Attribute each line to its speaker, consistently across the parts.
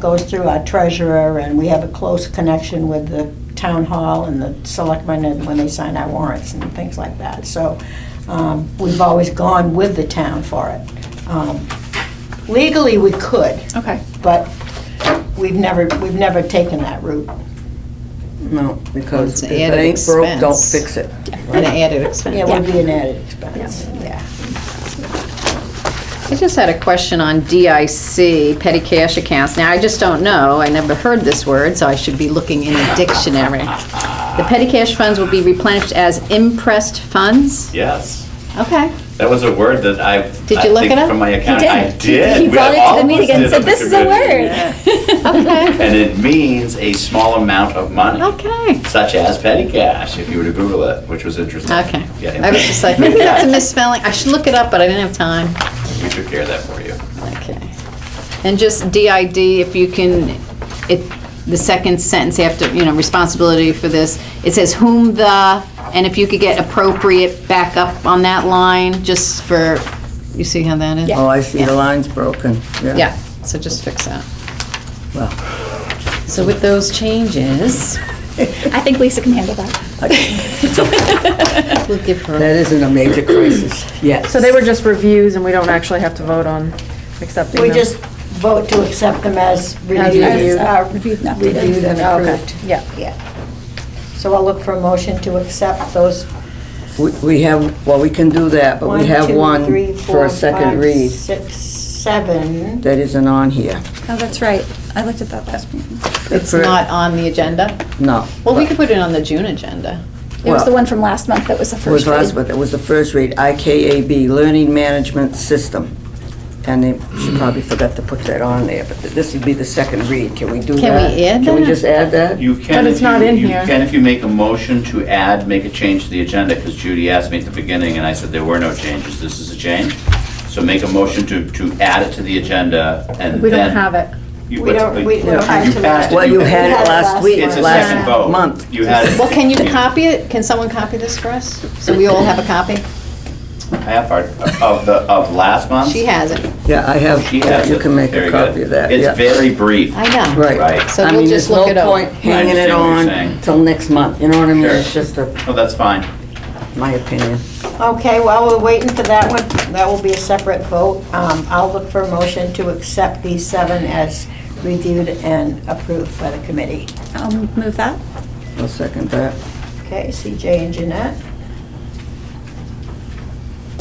Speaker 1: goes through our treasurer, and we have a close connection with the town hall and the selectmen and when they sign our warrants and things like that. So um, we've always gone with the town for it. Um, Legally, we could,
Speaker 2: Okay.
Speaker 1: but we've never, we've never taken that route.
Speaker 3: No, because
Speaker 2: It's an
Speaker 3: if it
Speaker 2: added
Speaker 3: ain't broke, don't
Speaker 2: expense.
Speaker 3: fix it.
Speaker 2: An added expense.
Speaker 1: It would be an added expense, yeah.
Speaker 2: I just had a question on DIC, petty cash accounts. Now, I just don't know, I never heard this word, so I should be looking in a dictionary. The petty cash funds will be replenished as impressed funds?
Speaker 4: Yes.
Speaker 2: Okay,
Speaker 4: That was a word that I.
Speaker 2: Did
Speaker 4: I
Speaker 2: you look
Speaker 4: think
Speaker 2: it up?
Speaker 4: From my
Speaker 5: He
Speaker 4: account. I
Speaker 5: did.
Speaker 4: did. We
Speaker 5: He brought it to
Speaker 4: almost
Speaker 5: the meeting
Speaker 4: did
Speaker 5: and said,
Speaker 4: on the
Speaker 5: this is a
Speaker 4: committee."
Speaker 5: word.
Speaker 2: okay,
Speaker 4: And it means a small amount of money,
Speaker 2: okay,
Speaker 4: such as petty cash, if you were to Google it, which was interesting.
Speaker 2: okay.
Speaker 4: Yeah.
Speaker 2: I was just like, maybe that's a misspelling, I should look it up, but I didn't have time.
Speaker 4: We took care of that for you.
Speaker 2: Okay. And just DID, if you can, it, the second sentence after, you know, responsibility for this, it says whom the, and if you could get appropriate back up on that line, just for, you see how that is?
Speaker 3: Oh, I see the
Speaker 2: Yeah.
Speaker 3: line's broken, yeah.
Speaker 2: Yeah, so just fix that.
Speaker 3: Well,
Speaker 2: So with those changes,
Speaker 5: I think Lisa can handle that.
Speaker 2: we'll give her,
Speaker 3: that isn't a major crisis, yes.
Speaker 6: So they were just reviews and we don't actually have to vote on accepting
Speaker 1: We
Speaker 6: them?
Speaker 1: just vote to accept them as
Speaker 6: reviewed.
Speaker 1: reviewed, uh,
Speaker 5: Reviewed, not
Speaker 1: reviewed and
Speaker 6: Okay,
Speaker 1: approved.
Speaker 6: yeah.
Speaker 1: So I'll look for a motion to accept those
Speaker 3: We- We have, well, we can do that, but we
Speaker 1: one,
Speaker 3: have
Speaker 1: two,
Speaker 3: one
Speaker 1: three,
Speaker 3: for
Speaker 1: four,
Speaker 3: a second
Speaker 1: five,
Speaker 3: read
Speaker 1: six, seven.
Speaker 3: that isn't on here.
Speaker 5: Oh, that's right. I looked at that last meeting.
Speaker 2: it's
Speaker 3: For-
Speaker 2: not on the agenda?
Speaker 3: No.
Speaker 2: Well, we
Speaker 3: but
Speaker 2: could put it on the June agenda.
Speaker 5: It was
Speaker 3: Well-
Speaker 5: the one from last month that was the
Speaker 3: It was
Speaker 5: first
Speaker 3: last,
Speaker 5: read.
Speaker 3: but it was the first read, IKAB, Learning Management System. And they, she probably forgot to put that on there, but this would be the second read, can we do that?
Speaker 2: Can we add
Speaker 3: Can we
Speaker 2: that?
Speaker 3: just add that?
Speaker 4: You can.
Speaker 6: But
Speaker 4: if
Speaker 6: it's not
Speaker 4: you-
Speaker 6: in
Speaker 4: you
Speaker 6: here.
Speaker 4: can if you make a motion to add, make a change to the agenda, because Judy asked me at the beginning, and I said there were no changes. This is a change. So make a motion to, to add it to the agenda, and then.
Speaker 6: We don't have it.
Speaker 4: You-
Speaker 1: We don't- we- we don't
Speaker 4: you
Speaker 1: have it
Speaker 4: passed
Speaker 1: tonight.
Speaker 3: Well, you had
Speaker 1: had
Speaker 3: it
Speaker 1: it
Speaker 3: last
Speaker 1: last
Speaker 3: week,
Speaker 4: It's a
Speaker 1: last
Speaker 4: second vote.
Speaker 3: month.
Speaker 4: You had it.
Speaker 2: Well, can you copy it? Can someone copy this for us? So we all have a copy?
Speaker 4: Half part of the, of last month?
Speaker 2: She has it.
Speaker 3: Yeah, I
Speaker 4: She has
Speaker 3: have, you
Speaker 4: it.
Speaker 3: can make
Speaker 4: There
Speaker 3: a
Speaker 4: you go.
Speaker 3: copy of that, yeah.
Speaker 4: It's very brief.
Speaker 2: I know.
Speaker 3: Right.
Speaker 4: Right.
Speaker 2: So we'll just look it
Speaker 3: I
Speaker 2: over.
Speaker 3: mean, there's no point hanging it
Speaker 4: understand what you're
Speaker 3: on
Speaker 4: saying.
Speaker 3: till next month, you know what I mean?
Speaker 4: Sure.
Speaker 3: It's just a,
Speaker 4: Oh, that's fine.
Speaker 3: my opinion.
Speaker 1: Okay, while we're waiting for that one, that will be a separate vote. Um, I'll look for a motion to accept these seven as reviewed and approved by the committee.
Speaker 5: I'll move that.
Speaker 3: I'll second that.
Speaker 1: Okay, CJ and Jeanette.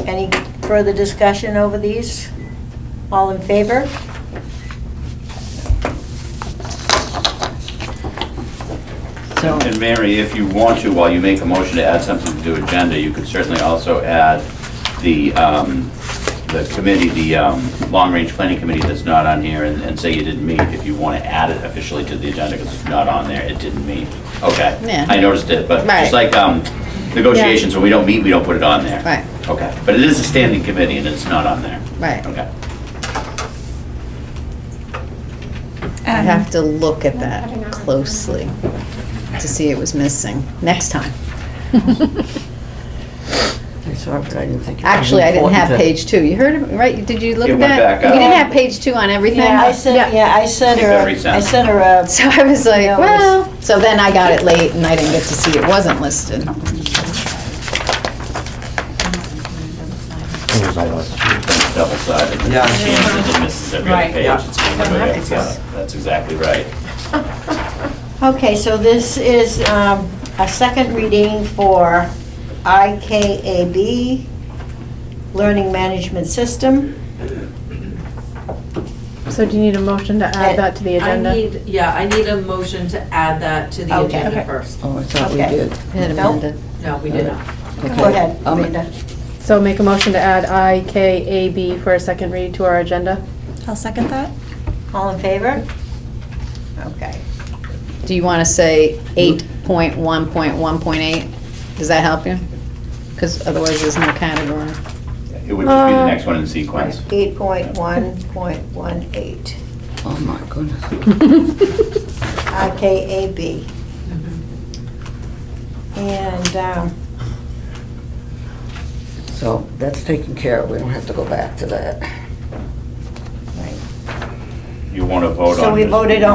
Speaker 1: Any further discussion over these? All in favor?
Speaker 2: So.
Speaker 4: And Mary, if you want to, while you make a motion to add something to the agenda, you could certainly also add the, um, the committee, the um, Long Range Planning Committee that's not on here and and say you didn't meet, if you want to add it officially to the agenda because it's not on there, it didn't meet. Okay.
Speaker 2: Yeah.
Speaker 4: I noticed it, but
Speaker 2: Right.
Speaker 4: just like um, negotiations, when we don't meet, we don't put it on there.
Speaker 2: Right.
Speaker 4: Okay. But it is a standing committee and it's not on there.
Speaker 2: Right.
Speaker 4: Okay.
Speaker 2: I have to look at that closely to see it was missing next time.
Speaker 3: I saw it, but I didn't think it was
Speaker 2: Actually, I didn't have
Speaker 3: important to-
Speaker 2: page two. You heard, it, right? Did you look
Speaker 4: It
Speaker 2: at
Speaker 4: went
Speaker 2: that?
Speaker 4: back up.
Speaker 2: You didn't have page two on everything?
Speaker 1: Yeah, I sent, yeah, I sent her,
Speaker 4: Every
Speaker 1: a- I
Speaker 4: sentence.
Speaker 1: sent her uh, a
Speaker 2: So I was like,
Speaker 1: Yeah, it was-
Speaker 2: well, so then I got it late and I didn't get to see it wasn't listed.
Speaker 4: double sided.
Speaker 3: Yeah.
Speaker 4: Changes and misses every other
Speaker 7: Right.
Speaker 4: page.
Speaker 3: Yeah.
Speaker 4: It's everybody else. Yeah, That's exactly right.
Speaker 1: Okay, so this is um, a second reading for IKAB, Learning Management System.
Speaker 6: So do you need a motion to add that to the
Speaker 7: I
Speaker 6: agenda?
Speaker 7: need, yeah, I need a motion to add that to the
Speaker 1: Okay.
Speaker 7: agenda
Speaker 1: Okay.
Speaker 7: first.
Speaker 3: Oh, I thought we
Speaker 1: Okay.
Speaker 3: did.
Speaker 2: Had
Speaker 1: Nope.
Speaker 2: amended.
Speaker 7: No, we did not.
Speaker 1: Go ahead,
Speaker 3: Um,
Speaker 1: Linda.
Speaker 6: So make a motion to add IKAB for a second read to our agenda?
Speaker 5: I'll second that.
Speaker 1: All in favor? Okay.
Speaker 2: Do you want to say 8.1.1.8? Does that help you? Because otherwise there's no category.
Speaker 4: It would just be the
Speaker 6: Uh,
Speaker 4: next one in sequence.
Speaker 1: 8.1.18,
Speaker 3: Oh, my goodness.
Speaker 1: IKAB. And um,
Speaker 3: So that's taken care of, we don't have to go back to that.
Speaker 1: Right.
Speaker 8: you want to vote on.
Speaker 4: So we
Speaker 8: just-
Speaker 4: voted on